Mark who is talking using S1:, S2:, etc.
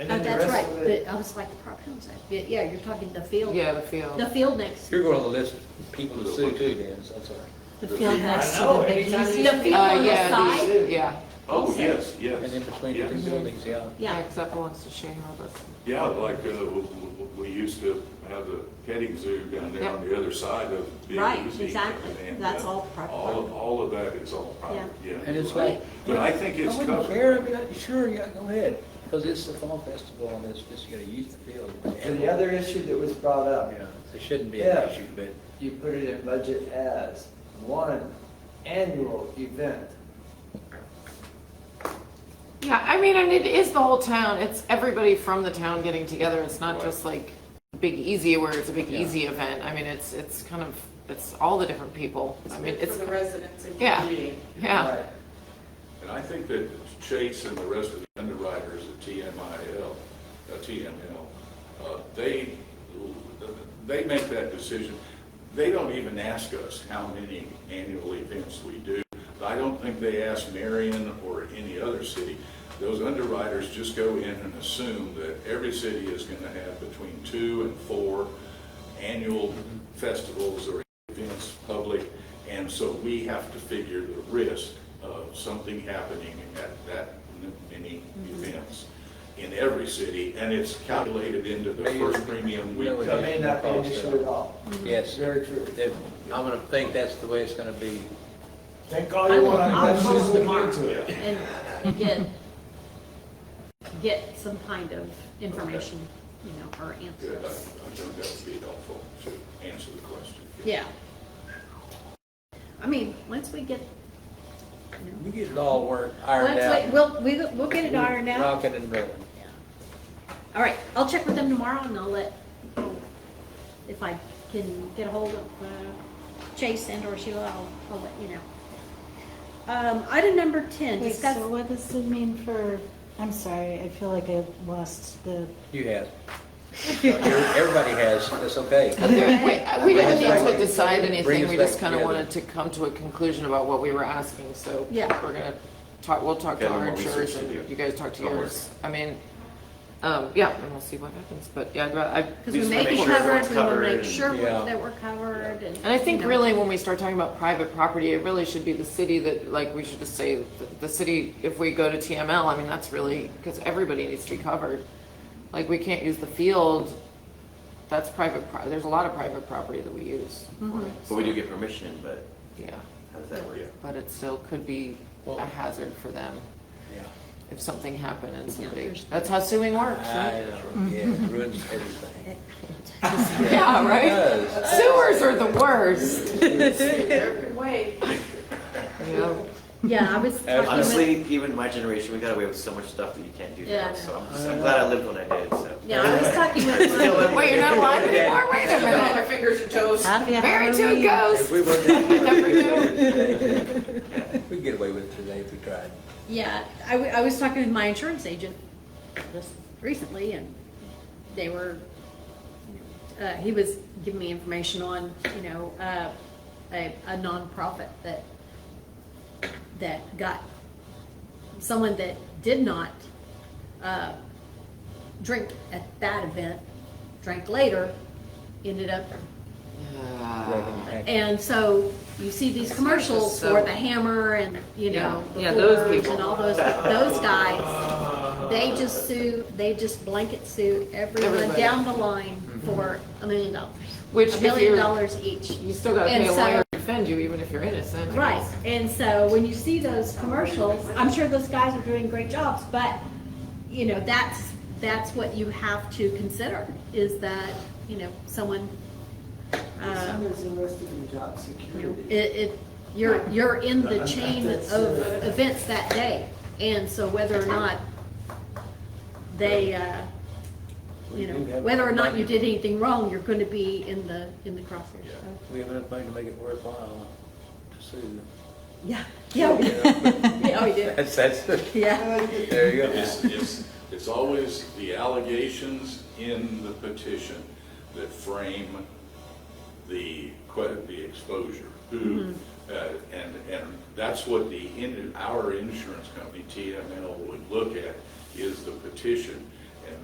S1: the
S2: Oh, That's
S1: rest
S2: right,
S1: of
S2: but
S1: it.
S2: I was like, the property owns that, Yeah, yeah, you're talking the field,
S3: Yeah, the
S2: the
S3: field. Uh,
S2: field next,
S4: You're going on the list of people to sue too, Dan, so that's all right.
S2: the field next to
S1: I know,
S2: the big,
S1: anytime
S2: the
S1: you-
S2: field
S3: Uh,
S2: on the
S3: yeah, the-
S2: side.
S3: Yeah,
S5: Oh, yes,
S4: And in
S5: yes.
S4: between
S5: Yeah.
S4: the two buildings, yeah.
S3: yeah,
S2: Yeah,
S3: except once the Shayna, but,
S5: Yeah, like, uh, w- w- we used to have the petting zoo down there on the other side of the
S2: Right,
S5: Uzi.
S2: exactly.
S5: And,
S2: That's
S5: uh,
S2: all private.
S5: All, all of that is all private, yeah.
S4: And it's
S5: you're right.
S4: like-
S5: But I think it's
S4: I wouldn't care,
S5: covered.
S4: but I- sure, yeah, go ahead, because it's the fall festival and it's just gonna use the field.
S1: And the other issue that was brought up,
S4: Yeah, it shouldn't be an
S1: Yeah.
S4: issue, but
S1: you put it in budget as one annual event.
S3: yeah, I mean, and it is the whole town, it's everybody from the town getting together, it's not
S5: Right.
S3: just like Big Easy where it's a Big
S4: Yeah.
S3: Easy event, I mean, it's, it's kind of, it's all the different people, I mean,
S6: It's
S3: it's,
S6: for the residents and
S3: yeah.
S6: community.
S3: yeah,
S2: Oh.
S1: Right.
S5: And I think that Chase and the rest of the underwriters at TMIL, uh, TML, uh, they, they make that decision. They don't even ask us how many annual events we do. I don't think they ask Marion or any other city. Those underwriters just go in and assume that every city is going to have between two and four annual festivals or events public, and so we have to figure the risk of something happening at that many events in every city, and it's calculated into the first premium we
S4: No, it
S1: That may
S5: pay.
S1: not be an issue at all.
S4: yes,
S1: Very true.
S4: that- I'm gonna think that's the way it's gonna be.
S1: Think all you want,
S2: I'll- I'll
S1: let's just
S2: close the
S1: look
S2: mark.
S1: into it.
S2: and and get, get some kind of information, you know, or
S5: Good, I I
S2: answers.
S5: think that would be helpful to answer the question.
S2: Yeah. I mean, once we get, you know,
S4: We get it all worked, ironed
S2: once we,
S4: out.
S2: we'll, we- we'll get it ironed out.
S4: Rocking and rolling.
S2: All right, I'll check with them tomorrow and I'll let, if I can get a hold of uh, Chase and or Sheila, I'll, I'll let you know. Um, item number ten,
S7: Wait,
S2: discuss,
S7: so what does it mean for, I'm sorry, I feel like I lost the,
S4: You have. Everybody has, that's okay.
S3: But there- we- we didn't
S4: Bring us
S3: need
S4: back-
S3: to decide
S4: bring
S3: anything,
S4: us
S3: we just
S4: back
S3: kind of
S4: together.
S3: wanted to come to a conclusion about what we were asking, so we're
S2: Yeah.
S3: gonna talk, we'll talk to
S5: Okay,
S3: our
S5: then we'll
S3: insurers
S5: research it.
S3: and you guys talk to
S5: Don't worry.
S3: yours, I mean, um, yeah, and we'll see what happens, but yeah, I'd ra- I,
S2: because we
S5: Just
S2: may
S5: make
S2: be
S5: sure
S2: covered,
S5: everyone's
S2: we will
S5: covered
S2: make
S5: and-
S2: sure we're-
S4: Yeah.
S2: that we're covered and.
S3: And I think
S2: you know.
S3: really when we start talking about private property, it really should be the city that, like, we should just say, the- the city, if we go to TML, I mean, that's really, because everybody needs to be covered. Like, we can't use the field, that's private, pro- there's a lot of private property that we use. for it,
S8: But we do get permission, but
S3: Yeah,
S8: how does that work?
S5: Yeah.
S3: but it still could be a hazard for them
S4: Yeah.
S3: if something happened and somebody,
S2: there's-
S3: that's how suing works,
S4: I
S3: right?
S4: know, yeah, it ruins everything.
S3: Yeah, right?
S4: It does.
S3: Sewers are the worst.
S6: Every way.
S3: Yeah.
S2: Yeah, I was talking with,
S8: Honestly, even my generation, we got away with so much stuff that you can't do
S2: Yeah, I
S8: now, so I'm just, I'm glad I lived when I did, so.
S2: yeah, I was talking with. my-
S3: Wait, you're not alive anymore? Wait a
S6: On their
S3: minute.
S6: fingers and toes.
S7: happy
S3: Married to a
S7: Halloween.
S3: ghost.
S4: If we were to-
S8: Yeah.
S4: We'd get away with it today if we tried.
S2: Yeah, I, w- I was talking with my insurance agent just recently, and they were, uh, he was giving me information on, you know, uh, a, a nonprofit that, that got someone that did not, uh, drink at that event, drank later, ended up, and so you see these commercials
S3: So-
S2: for the hammer and, you know, the
S3: Yeah, yeah, those
S2: Fords
S3: people.
S2: And all those, those guys. They just sue, they just blanket sue everyone
S3: Everybody. Mm-hmm.
S2: down the line for a million dollars.
S3: Which
S2: A
S3: if
S2: million
S3: you're-
S2: dollars each.
S3: You still gotta
S2: And
S3: pay a
S2: so-
S3: lawyer to defend you, even if you're innocent. I
S2: Right,
S3: guess.
S2: and so when you see those commercials, I'm sure those guys are doing great jobs, but, you know, that's, that's what you have to consider, is that, you know, someone, uh,
S1: Someone's invested in job
S2: you know,
S1: security.
S2: it, it, you're, you're in the chain of events that day. And so whether or not they, uh, you know, whether or not you did anything wrong, you're gonna be in the, in the crosshairs.
S5: Yeah.
S2: So,
S4: We have enough money to make it worthwhile to sue.
S2: Yeah, yeah, we did. yeah, we did,
S4: That's, that's, the-
S2: yeah.
S4: there you go.
S5: It's, it's, it's always the allegations in the petition that frame the, que- the exposure.
S4: Mm-hmm.
S5: Who, uh, and, and that's what the, in- our insurance company, TML, would look at, is the petition